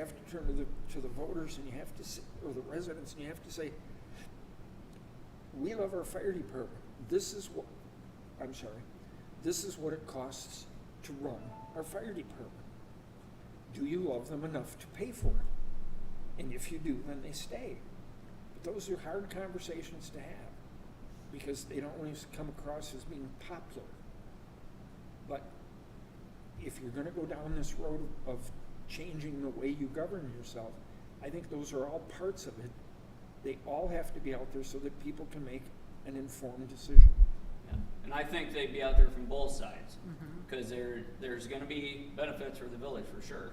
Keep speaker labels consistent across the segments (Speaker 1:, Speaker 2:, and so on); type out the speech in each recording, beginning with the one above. Speaker 1: have to turn to the, to the voters and you have to, s- or the residents, and you have to say, we love our fire department. This is what, I'm sorry, this is what it costs to run our fire department. Do you love them enough to pay for it? And if you do, then they stay. But those are hard conversations to have because they don't always come across as being popular. But if you're gonna go down this road of changing the way you govern yourself, I think those are all parts of it. They all have to be out there so that people can make an informed decision.
Speaker 2: Yeah. And I think they'd be out there from both sides, because there, there's gonna be benefits for the village for sure,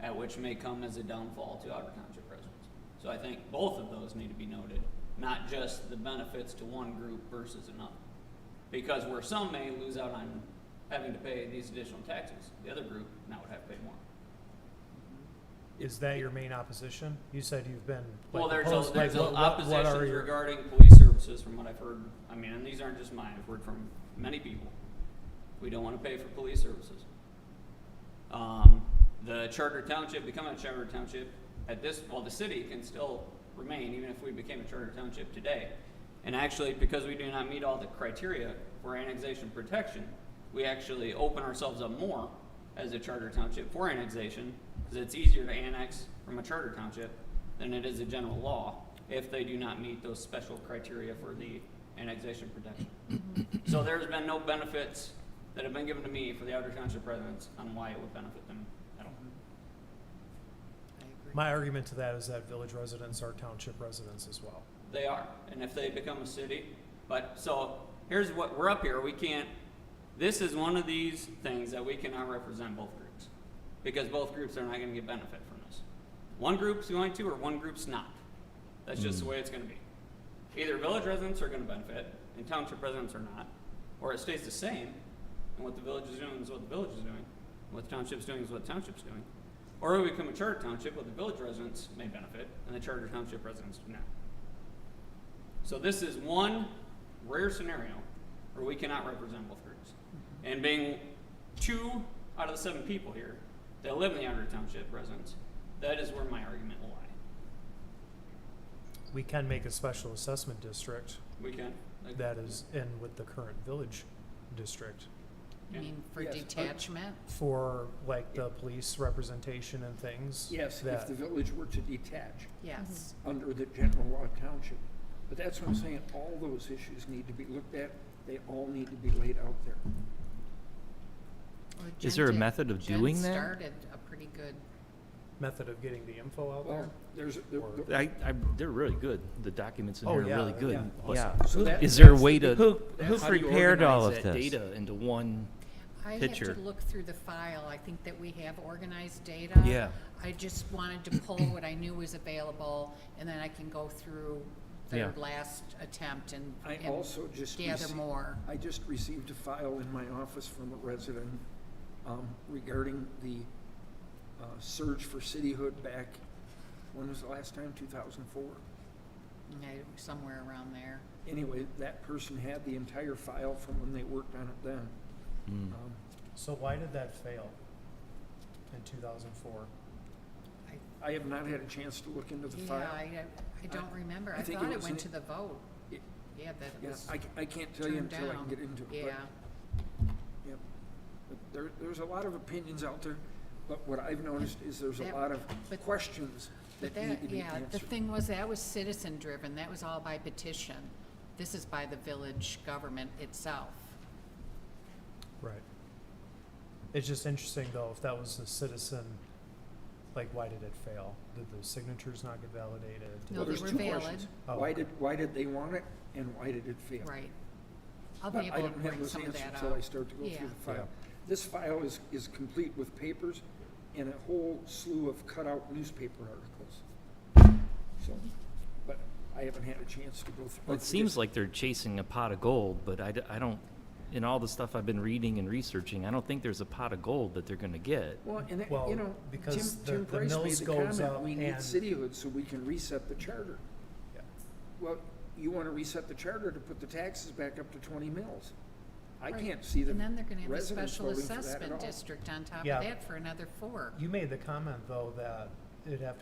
Speaker 2: at which may come as a downfall to Otter Township residents. So I think both of those need to be noted, not just the benefits to one group versus another. Because where some may lose out on having to pay these additional taxes, the other group now would have to pay more.
Speaker 3: Is that your main opposition? You said you've been. like,
Speaker 2: Well, there's
Speaker 3: opposed-
Speaker 2: a, there's
Speaker 3: like,
Speaker 2: a
Speaker 3: what- what- what are
Speaker 2: opposition
Speaker 3: your-
Speaker 2: regarding police services from what I've heard. I mean, and these aren't just mine, I've heard from many people. We don't wanna pay for police services. Um, the charter township, becoming a charter township, at this, well, the city can still remain, even if we became a charter township today. And actually, because we do not meet all the criteria for annexation protection, we actually open ourselves up more as a charter township for annexation, because it's easier to annex from a charter township than it is a general law, if they do not meet those special criteria for the annexation protection. So there's been no benefits that have been given to me for the Outer Township residents on why it would benefit them at all.
Speaker 3: My argument to that is that village residents are township residents as well.
Speaker 2: They are, and if they become a city, but, so, here's what, we're up here, we can't, this is one of these things that we cannot represent both groups, because both groups are not gonna get benefit from this. One group's going to, or one group's not. That's just the way it's gonna be. Either village residents are gonna benefit, and township residents are not, or it stays the same, and what the village is doing is what the village is doing, what the township's doing is what the township's doing. Or we become a charter township, where the village residents may benefit, and the charter township residents do not. So this is one rare scenario where we cannot represent both groups.
Speaker 3: Mm-hmm.
Speaker 2: And being two out of the seven people here that live in the Outer Township residents, that is where my argument will lie.
Speaker 3: We can make a special assessment district
Speaker 2: We can. like-
Speaker 3: that is in with the current village district
Speaker 2: Yeah.
Speaker 4: You mean for
Speaker 1: Yes, but-
Speaker 4: detachment?
Speaker 3: for like the police representation and things.
Speaker 1: Yes, if
Speaker 3: That,
Speaker 1: the village were to detach
Speaker 4: Yes.
Speaker 1: under the general law township. But that's what I'm saying, all those issues need to be looked at, they all need to be laid out there.
Speaker 4: Well,
Speaker 5: Is
Speaker 4: Jen
Speaker 5: there a
Speaker 4: did-
Speaker 5: method of
Speaker 4: Jen
Speaker 5: doing that?
Speaker 4: started a pretty good,
Speaker 3: method of getting the info out
Speaker 1: Well,
Speaker 3: there.
Speaker 1: there's, the- the-
Speaker 5: I, I, they're really good. The documents in
Speaker 3: Oh,
Speaker 5: here
Speaker 3: yeah,
Speaker 5: are really good.
Speaker 1: yeah.
Speaker 5: Awesome.
Speaker 1: So that-
Speaker 5: Is there a
Speaker 1: that's
Speaker 5: way
Speaker 1: the-
Speaker 5: to?
Speaker 6: Who- who
Speaker 5: how do you
Speaker 6: prepared all
Speaker 5: organize
Speaker 6: of
Speaker 5: that
Speaker 6: this?
Speaker 5: Data into one,
Speaker 4: I have to
Speaker 5: Picture.
Speaker 4: look through the file, I think that we have organized data.
Speaker 5: Yeah.
Speaker 4: I just wanted to pull what I knew was available, and then I can go through
Speaker 5: Yeah.
Speaker 4: their last attempt and
Speaker 1: I
Speaker 4: and
Speaker 1: also just
Speaker 4: gather
Speaker 1: received-
Speaker 4: more.
Speaker 1: I just received a file in my office from a resident um, regarding the uh, surge for cityhood back, when was the last time, 2004?
Speaker 4: Yeah, Somewhere around there.
Speaker 1: Anyway, that person had the entire file from when they worked on it then.
Speaker 5: Mm.
Speaker 1: Um,
Speaker 3: So why did that fail in two thousand four?
Speaker 1: I have not had a chance to look into the
Speaker 4: Yeah,
Speaker 1: file.
Speaker 4: I, I don't remember,
Speaker 1: I
Speaker 4: I
Speaker 1: think
Speaker 4: thought
Speaker 1: it
Speaker 4: it
Speaker 1: was
Speaker 4: went
Speaker 1: an-
Speaker 4: to the vote.
Speaker 1: It-
Speaker 4: Yeah, that
Speaker 1: Yeah,
Speaker 4: was
Speaker 1: I, ca- I can't tell you
Speaker 4: turned
Speaker 1: until I can
Speaker 4: down.
Speaker 1: get into it. but-
Speaker 4: Yeah,
Speaker 1: Yep. But There, there's a lot of opinions out there, but what I've noticed is there's a
Speaker 4: That-
Speaker 1: lot of
Speaker 4: but-
Speaker 1: questions
Speaker 4: but
Speaker 1: that need
Speaker 4: that,
Speaker 1: to be
Speaker 4: yeah,
Speaker 1: answered.
Speaker 4: the thing was, that was citizen-driven, that was all by petition. This is by the village government itself.
Speaker 3: Right. It's just interesting though, if that was a citizen, like why did it fail? Did the signatures not get validated?
Speaker 4: No,
Speaker 1: Well,
Speaker 4: they
Speaker 1: there's
Speaker 4: were
Speaker 1: two questions.
Speaker 4: valid,
Speaker 3: Oh,
Speaker 1: Why
Speaker 3: okay.
Speaker 1: did, why did they want it and why did it fail?
Speaker 4: right. I'll
Speaker 1: But
Speaker 4: be
Speaker 1: I
Speaker 4: able to
Speaker 1: don't have
Speaker 4: bring
Speaker 1: those
Speaker 4: some of
Speaker 1: answers
Speaker 4: that
Speaker 1: until I
Speaker 4: out.
Speaker 1: start to go
Speaker 4: Yeah.
Speaker 1: through the file.
Speaker 3: Yeah.
Speaker 1: This file is, is complete with papers and a whole slew of cutout newspaper articles. So, but I haven't had a chance to go through.
Speaker 5: Well, it seems like they're chasing a pot of gold, but I, d- I don't, in all the stuff I've been reading and researching, I don't think there's a pot of gold that they're gonna get.
Speaker 1: Well, and, it-
Speaker 3: Well,
Speaker 1: you know, Tim,
Speaker 3: because the-
Speaker 1: Tim
Speaker 3: the
Speaker 1: Price made
Speaker 3: mills
Speaker 1: the
Speaker 3: goes
Speaker 1: comment,
Speaker 3: up
Speaker 1: we need
Speaker 3: and-
Speaker 1: cityhood so we can reset the charter.
Speaker 3: Yeah.
Speaker 1: Well, you wanna reset the charter to put the taxes back up to twenty mills. I
Speaker 4: Right.
Speaker 1: can't see the
Speaker 4: And then they're gonna have a
Speaker 1: residents
Speaker 4: special
Speaker 1: voting for that at
Speaker 4: assessment
Speaker 1: all.
Speaker 4: district on top of
Speaker 3: Yeah.
Speaker 4: that for another four.
Speaker 3: You made the comment though that it'd have to